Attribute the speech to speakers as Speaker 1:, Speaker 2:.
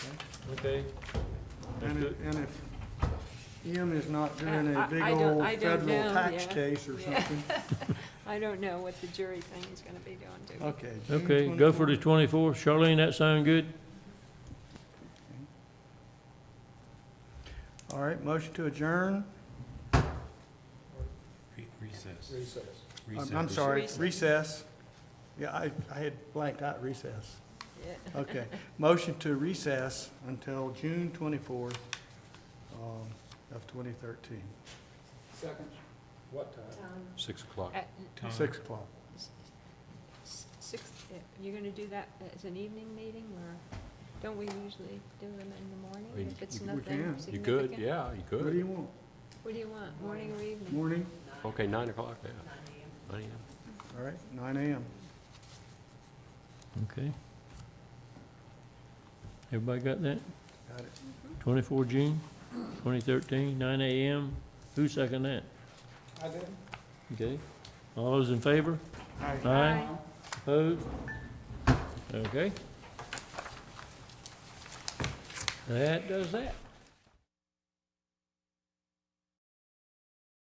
Speaker 1: Okay. That's
Speaker 2: And
Speaker 1: good.
Speaker 2: if, and if Ian is not doing a
Speaker 3: I- I
Speaker 2: big
Speaker 3: don't-
Speaker 2: old
Speaker 3: I don't know,
Speaker 2: federal tax
Speaker 3: yeah.
Speaker 2: case or
Speaker 3: Yeah.
Speaker 2: something,
Speaker 3: I don't know what the jury thing is gonna be doing to it.
Speaker 2: okay. June
Speaker 1: Okay, go for the
Speaker 2: 24th.
Speaker 1: twenty-fourth. Charlene, that sound good?
Speaker 2: All right, motion to adjourn,
Speaker 4: Re- Recess.
Speaker 5: recess.
Speaker 2: I'm-
Speaker 4: Recess.
Speaker 2: I'm sorry,
Speaker 3: Recess.
Speaker 2: recess. Yeah, I, I had blanked out recess.
Speaker 3: Yeah.
Speaker 2: Okay, motion to recess until June twenty-fourth um, of twenty thirteen,
Speaker 5: Second, what time?
Speaker 4: Six o'clock.
Speaker 3: At
Speaker 4: Time.
Speaker 2: six o'clock.
Speaker 3: s- Six, uh, you're gonna do that as an evening meeting, or don't we usually do them in the
Speaker 4: We-
Speaker 3: morning if it's
Speaker 2: we
Speaker 3: nothing
Speaker 2: can.
Speaker 3: significant?
Speaker 4: You good? Yeah, you
Speaker 2: What do
Speaker 4: good.
Speaker 2: you want?
Speaker 3: What do you want, morning or evening?
Speaker 2: Morning?
Speaker 4: Okay, nine o'clock, yeah. Nine AM.
Speaker 2: All right, nine AM.
Speaker 1: Okay. Everybody got that?
Speaker 2: Got it.
Speaker 1: Twenty-four June, 2013, 9 AM. Who second that?
Speaker 5: I did.
Speaker 1: Okay. All those in favor?
Speaker 2: Aye.
Speaker 1: Aye. Opposed? Okay. That does that.